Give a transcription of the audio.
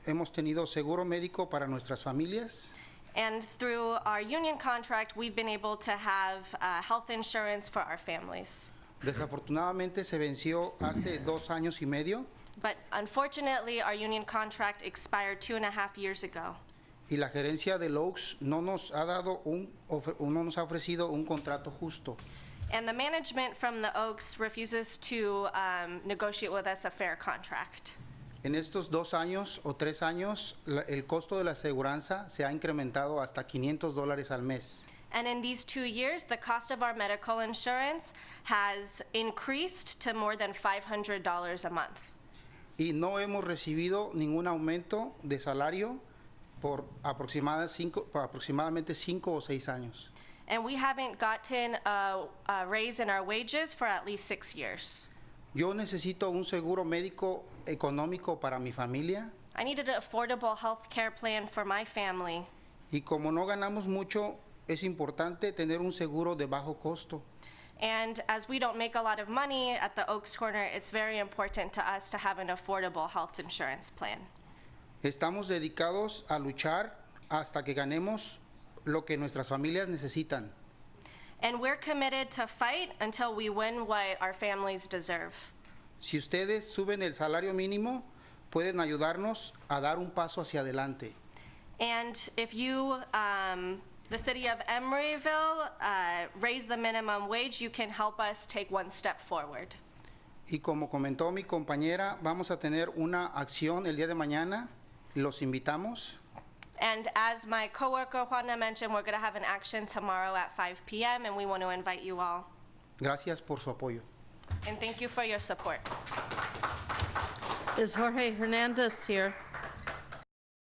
Hemos tenido seguro médico para nuestras familias And through our union contract, we've been able to have uh, health insurance for our families. Desafortunadamente se venció hace dos años y medio But unfortunately, our union contract expired two and a half years ago. y la gerencia del Oaks no nos ha dado un ofre- no nos ha ofrecido un contrato justo. And the management from the Oaks refuses to um, negotiate with us a fair contract. En estos dos años o tres años, la- el costo de la aseguranza se ha incrementado hasta 500 dólares al mes. And in these two years, the cost of our medical insurance has increased to more than $500 a month. Y no hemos recibido ningún aumento de salario por aproximada cinco- por aproximadamente cinco o seis años. And we haven't gotten a, a raise in our wages for at least six years. Yo necesito un seguro médico económico para mi familia I needed an affordable health care plan for my family. y como no ganamos mucho, es importante tener un seguro de bajo costo. And as we don't make a lot of money at the Oaks Corner, it's very important to us to have an affordable health insurance plan. Estamos dedicados a luchar hasta que ganemos lo que nuestras familias necesitan. And we're committed to fight until we win what our families deserve. Si ustedes suben el salario mínimo, pueden ayudarnos a dar un paso hacia adelante. And if you, um, the city of Emeryville, uh, raise the minimum wage, you can help us take one step forward. Y como comentó mi compañera, vamos a tener una acción el día de mañana. Los invitamos. And as my coworker Juana mentioned, we're going to have an action tomorrow at 5 p.m., and we want to invite you all. Gracias por su apoyo. And thank you for your support. Is Jorge Hernandez here?